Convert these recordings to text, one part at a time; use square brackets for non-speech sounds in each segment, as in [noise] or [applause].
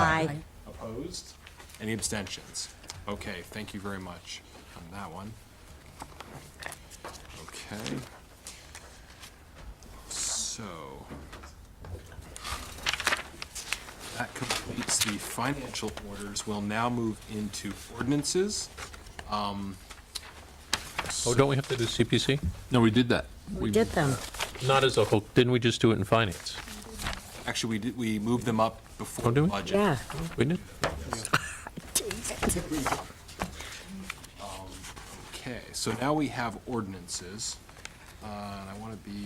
Aye. Opposed? Any abstentions? Okay, thank you very much on that one. Okay. So that completes the financial orders. We'll now move into ordinances. Oh, don't we have to do CPC? No, we did that. We did them. Not as a whole, didn't we just do it in finance? Actually, we did, we moved them up Oh, before did we? budget. Yeah. We did? Okay, so now we have ordinances, uh, and I want to be.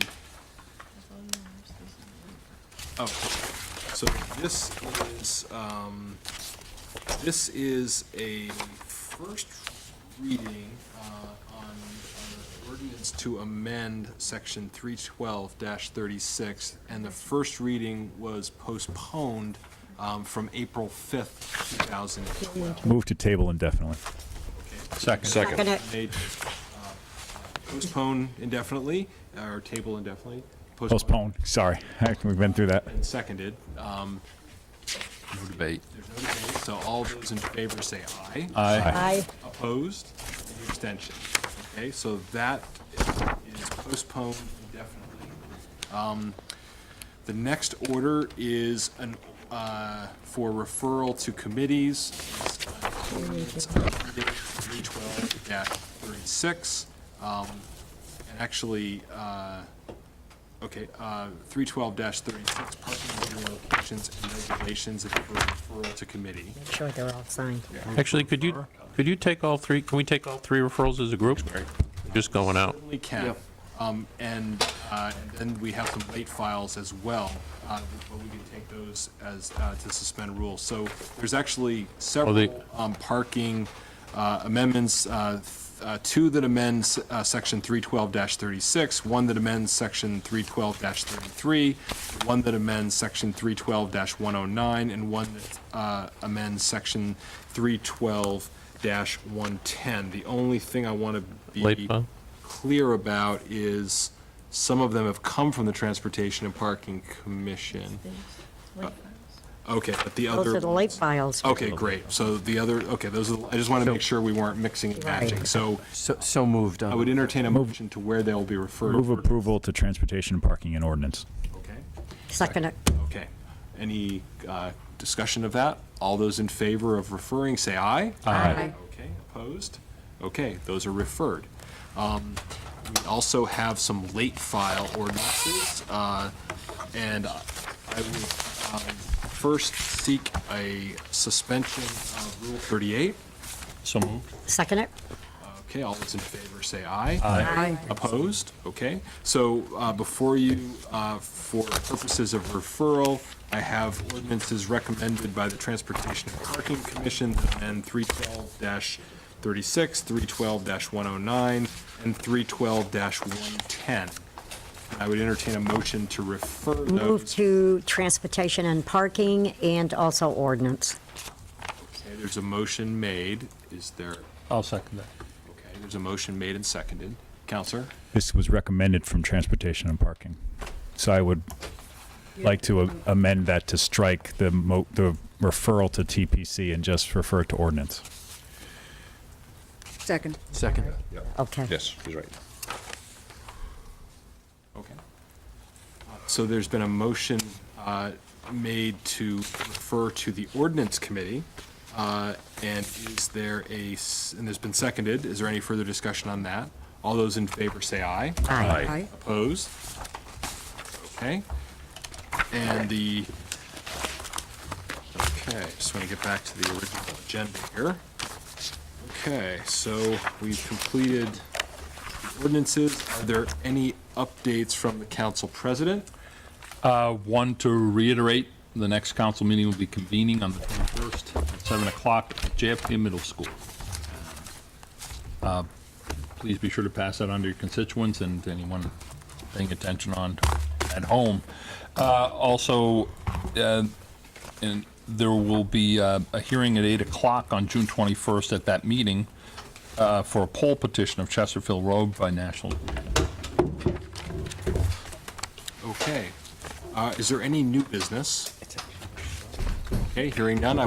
Oh, so this is, um, this is a first reading, uh, on on an ordinance to amend section three twelve thirty-six, and the first reading was postponed, um, from April fifth, two thousand and twelve. Move to table indefinitely. Second. Second. They, uh, Postpone indefinitely, or table indefinitely. Postpone. Sorry, [laughs] we've been through that. And seconded. Um, No debate. there's no debate, So all those in favor say aye. Aye. Aye. Opposed? Any abstention? Okay, so that is postponed indefinitely. Um, The next order is an, uh, for referral to committees. It's uh, Three twelve thirty-six. Um, and actually, uh, okay, uh, three twelve thirty-six, parking meter locations and regulations, it's for referral to committee. Make sure they're all signed. Actually, could you, could you take all three, can we take all three referrals as a group? Just going out. Certainly can. Um, And uh, and then we have some late files as well, uh, but we can take those as, uh, to suspend rules. So there's actually they- several um, parking uh, amendments, uh, th- uh, two that amends uh, Section 312-36, one that amends Section 312-33, one that amends Section 312-109, and one that uh, amends Section 312-110. The only thing I want to be Late file? clear about is some of them have come from the Transportation and Parking Commission. Uh, Okay, but the Those other. are Oh, the late files. Okay, great. So the other, okay, those are, I just wanted to make sure we weren't mixing and matching. So So, so moved. I would entertain a motion to where they'll be referred. Move approval to transportation, parking, and ordinance. Okay, Second. it. okay. Any uh, discussion of that? All those in favor of referring, say aye. Aye. Okay, opposed? Okay, those are referred. Um, We also have some late file ordinances, uh, and I would um, first seek a suspension of Rule 38. So moved. Second it. Okay, all those in favor say aye. Aye. Opposed? Okay. So uh, before you, uh, for purposes of referral, I have ordinances recommended by the Transportation and Parking Commission and 312-36, 312-109, and 312-110. I would entertain a motion to refer Move those. to transportation and parking and also ordinance. Okay, There's a motion made. Is there, I'll second that. okay, there's a motion made and seconded. Counselor? This was recommended from transportation and parking. So I would like to a- amend that to strike the mo, the referral to TPC and just refer to ordinance. Second. Second. Okay. Yes, he's right. Okay. So there's been a motion uh, made to refer to the ordinance committee, uh, and is there a, s- and there's been seconded, is there any further discussion on that? All those in favor say aye. Aye. Aye. Opposed? Okay. And the, okay, just want to get back to the original agenda here. Okay, so we've completed the ordinances. Are there any updates from the council president? Uh, One, to reiterate, the next council meeting will be convening on the 21st at 7 o'clock at JFK Middle School. Uh, Please be sure to pass that on to your constituents and to anyone paying attention on at home. Uh, Also, uh, and there will be uh, a hearing at 8 o'clock on June 21st at that meeting uh, for a poll petition of Chesterfield Road by National Okay. Uh, Is there any new business? Okay, hearing none, I